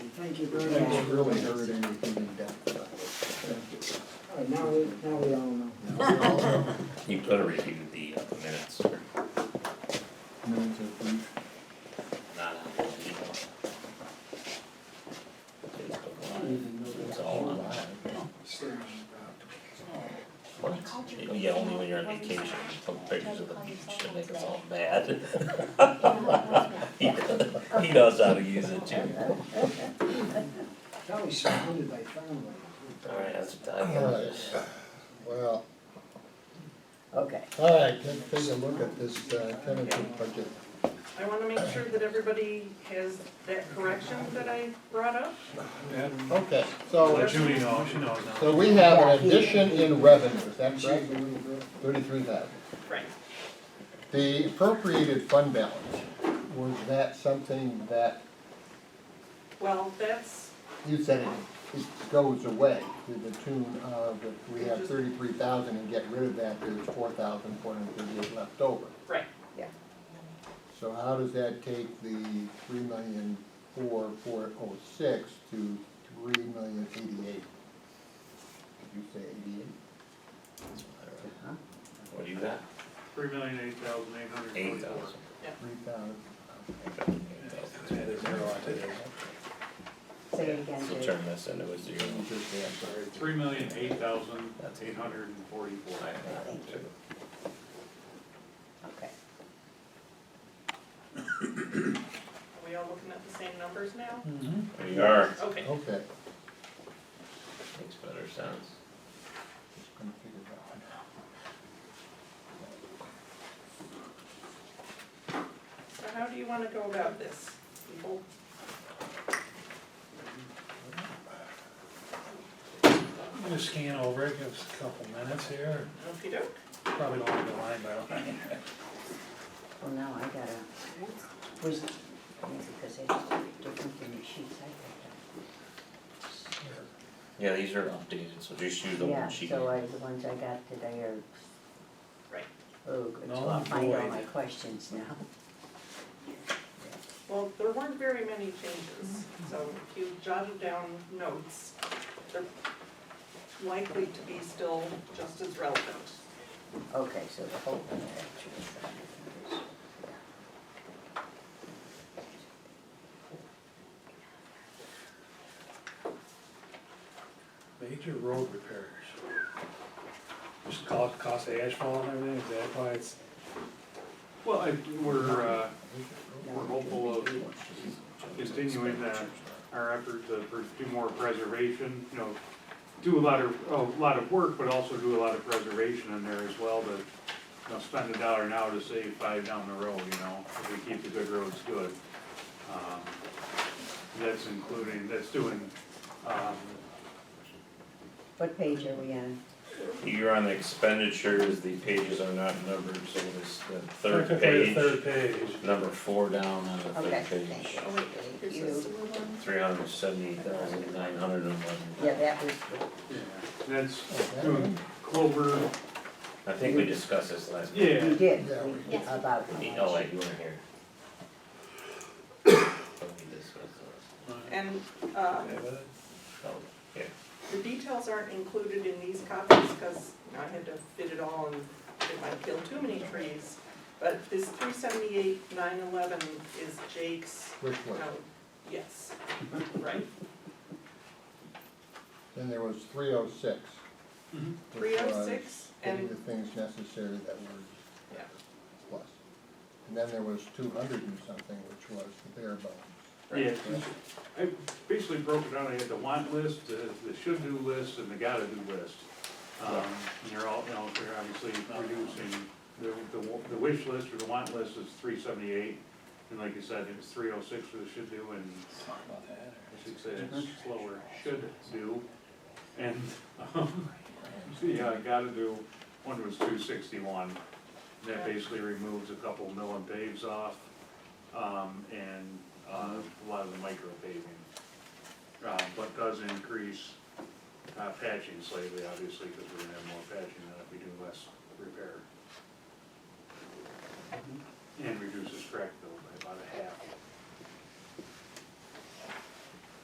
Thank you very much. haven't really heard anything in depth about it. All right, now we, now we all know. You could have reviewed the uh, minutes or Minutes of brief. not. you know. It's all online. What? Yeah, only when you're on vacation, some pictures of the beach and make us all mad. He he knows how to use it too. Now he's surrounded by family. Alright, that's the time. Alright, well, Okay. alright, let's take a look at this uh, tentative budget. I wanna make sure that everybody has that correction that I brought up. Okay, so, Let Judy know, she knows now. so we have an addition in revenue, is that correct? Thirty-three thousand. Right. The appropriated fund balance, was that something that, Well, that's, you said it, it goes away to the tune of, if we have thirty-three thousand and get rid of that, there's four thousand four hundred thirty-eight left over. right, So how does that take the three million four four oh six to three million eighty-eight? Did you say eighty-eight? What do you got? Three million eight thousand eight hundred Eight forty-four. thousand. Three thousand, Eight thousand. Say it again, So Dave. turn this into a zero. Three million eight thousand That's eight hundred and forty-four. Alright, Thank you. Okay. are we all looking at the same numbers now? We are. Okay, okay. Makes better sense. Just gonna figure that one out. so how do you wanna go about this, people? I'm gonna scan over it, give us a couple minutes here, Okey doke. probably don't have the line by line. Well, now I gotta, was, because they different than the sheets I Yeah, these are updated, so just use picked the up. Yeah, one sheet. so I, the ones I got today are. Right. Oh, good, so Null I'll and find all void. my questions now. Well, there weren't very many changes, so if you jotted down notes, they're likely to be still just as relevant. Okay, so the whole thing actually is. Major road repairs. Just call it cost of asphalt and everything, is that why it's? Well, I, we're, uh, we're hopeful of continuing that, our effort to pr- do more preservation, you know, do a lot of, a lot of work, but also do a lot of preservation in there as well, to, you know, spend a dollar now to save five down the road, you know, if we keep the good roads good. Um, That's including, that's doing, um, What page are we on? You're on the expenditures, the pages are not numbered, so it's the third Technically, page, the third page. number four down on the Okay, third thank page. you. Oh wait, Thank here's this you. little one. Three hundred seventy thousand nine hundred and eleven. Yeah, that was the That's Okay. doing Clover, I think we discussed this last. meeting. yeah, We did, Yeah, we- we- yeah, about. how You know, much. like you weren't here. So we discussed this. And, uh, Oh, yeah. The details aren't included in these copies because I had to fit it all and it might kill too many trees. But this three seventy-eight, nine eleven is Jake's, Which no, one? yes, right? Then there was three oh six. Mhm. Three oh six Getting the and, things necessary that were Yeah. plus. And then there was two hundred and something, which was the bare bones. yeah. I basically broke it down, I had the want list, the, the should-do list, and the gotta-do list. Um, and they're all, you know, they're obviously reducing, the, the, wa- the wish list or the want list is three seventy-eight. And like you said, it was three oh six for the should-do and I should say it's slower, should do. And, um, yeah, I gotta do, one was two sixty-one. That basically removes a couple mill and paves off, um, and, uh, a lot of the micro paving. Uh, but does increase, uh, patching slightly, obviously, because we're gonna have more patching than if we do less repair. And reduces crack